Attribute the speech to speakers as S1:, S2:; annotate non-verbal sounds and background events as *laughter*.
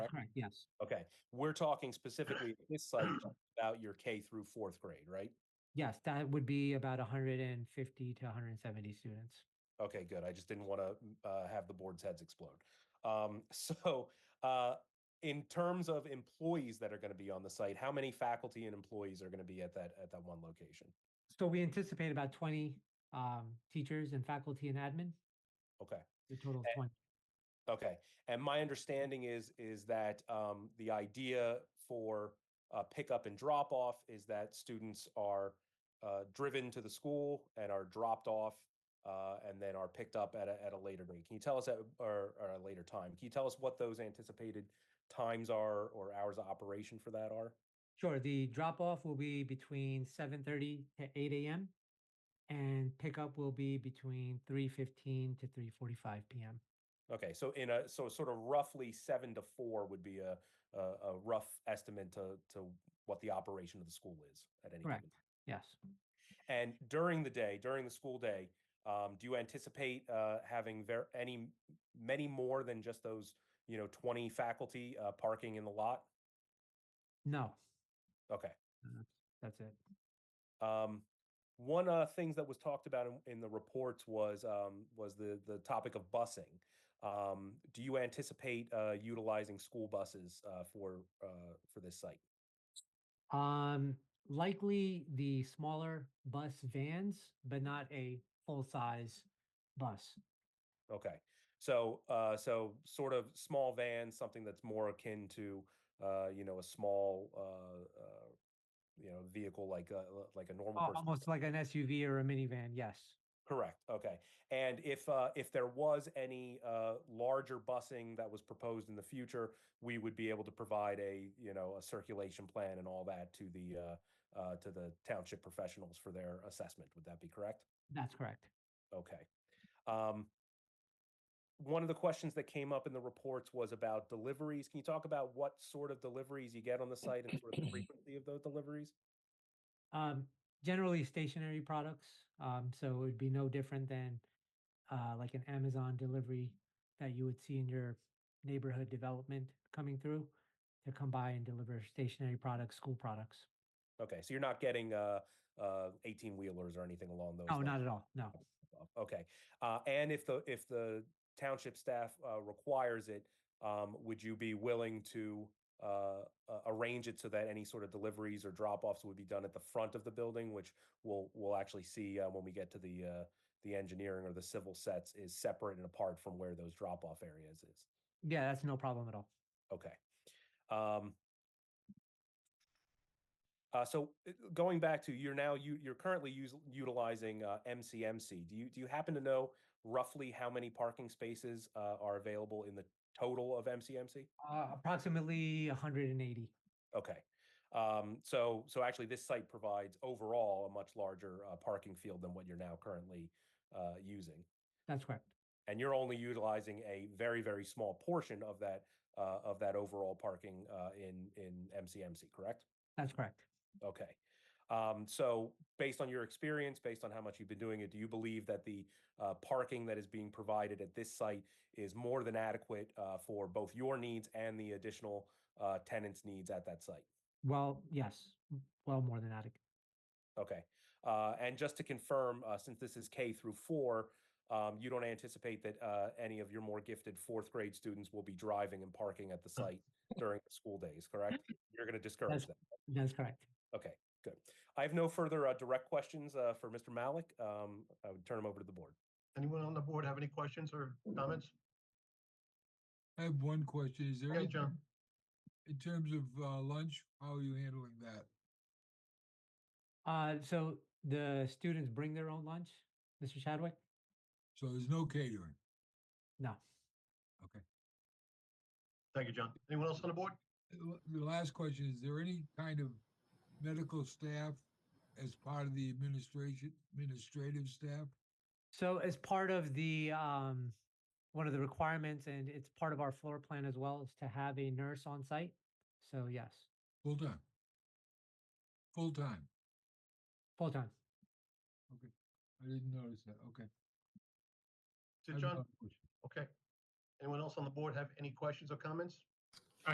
S1: yes,
S2: Okay, we're talking specifically at this site about your K through fourth grade, right?
S1: yes, that would be about hundred and fifty to hundred and seventy students.
S2: Okay, good. I just didn't want to uh, have the board's heads explode. Um, *laughs* so, uh, in terms of employees that are going to be on the site, how many faculty and employees are going to be at that at that one location?
S1: So we anticipate about twenty um teachers and faculty and admin,
S2: Okay,
S1: the total of
S2: Eh,
S1: twenty.
S2: okay. And my understanding is is that um, the idea for uh, pickup and drop off is that students are uh, driven to the school and are dropped off. Uh, and then are picked up at a, at a later date. Can you tell us at or, or a later time? Can you tell us what those anticipated times are or hours of operation for that are?
S1: Sure, the drop off will be between seven thirty to eight AM. And pickup will be between three fifteen to three forty-five PM.
S2: Okay, so in a so sort of roughly seven to four would be a a, a rough estimate to to what the operation of the school is at any
S1: Correct,
S2: given-
S1: yes.
S2: And during the day, during the school day, um, do you anticipate uh, having ver- any many more than just those you know twenty faculty uh, parking in the lot?
S1: No,
S2: Okay.
S1: that's it.
S2: Um, one of the things that was talked about in, in the reports was um, was the the topic of busing. Um, do you anticipate uh, utilizing school buses uh, for uh, for this site?
S1: Um, likely the smaller bus vans, but not a full-size bus.
S2: Okay, so uh, so sort of small vans, something that's more akin to uh, you know a small uh, uh, you know vehicle like a, uh, like a normal
S1: Al-
S2: person.
S1: Almost like an SUV or a minivan, yes.
S2: Correct. Okay. And if uh, if there was any uh, larger busing that was proposed in the future, we would be able to provide a you know a circulation plan and all that to the uh, uh, to the township professionals for their assessment. Would that be correct?
S1: That's correct.
S2: Okay. Um, one of the questions that came up in the reports was about deliveries. Can you talk about what sort of deliveries you get on the site and sort of the frequency of those deliveries?
S1: Um, generally stationary products, um, so it would be no different than uh, like an Amazon delivery that you would see in your neighborhood development coming through to come by and deliver stationary products, school products.
S2: Okay, so you're not getting uh, uh, 18 wheelers or anything along those.
S1: No,
S2: lines?
S1: Oh, not at all. No.
S2: above. Okay, uh, and if the, if the township staff, uh, requires it, um, would you be willing to, uh, uh, arrange it so that any sort of deliveries or drop-offs would be done at the front of the building, which we'll, we'll actually see, uh, when we get to the, uh, the engineering or the civil sets is separate and apart from where those drop-off areas is?
S1: Yeah, that's no problem at all.
S2: Okay. Um, uh, so uh, going back to you're now you you're currently us- utilizing uh, MCMC. Do you do you happen to know roughly how many parking spaces uh, are available in the total of MCMC?
S1: Uh, approximately 180.
S2: Okay. Um, so so actually, this site provides overall a much larger uh, parking field than what you're now currently uh, using.
S1: That's correct.
S2: and you're only utilizing a very very small portion of that uh, of that overall parking uh, in in MCMC, correct?
S1: That's correct.
S2: Okay. Um, so based on your experience, based on how much you've been doing it, do you believe that the uh, parking that is being provided at this site is more than adequate uh, for both your needs and the additional uh, tenants' needs at that site?
S1: Well, yes, m- well more than adequate.
S2: Okay. Uh, and just to confirm, uh, since this is K through four, um, you don't anticipate that, uh, any of your more gifted fourth grade students will be driving and parking at the site during the school days, correct? You're going to discourage that.
S1: That's correct.
S2: Okay, good. I have no further, uh, direct questions, uh, for Mr. Malik. Um, I would turn him over to the board.
S3: Anyone on the board have any questions or comments?
S4: I have one question. Is there
S3: Yeah,
S4: any,
S3: John.
S4: in terms of uh, lunch, how are you handling that?
S1: Uh, so the students bring their own lunch, Mr. Chadwick?
S4: So there's no catering.
S1: No.
S4: Okay.
S3: Thank you, John. Anyone else on the board?
S4: Uh, l- The last question, is there any kind of medical staff as part of the administration, administrative staff?
S1: So as part of the, um, one of the requirements, and it's part of our floor plan as well, is to have a nurse on site. So yes,
S4: Full time? Full time?
S1: full time.
S4: Okay. I didn't notice that. Okay.
S3: Is
S4: I
S3: it
S4: have
S3: John?
S4: another question.
S3: Okay. Anyone else on the board have any questions or comments?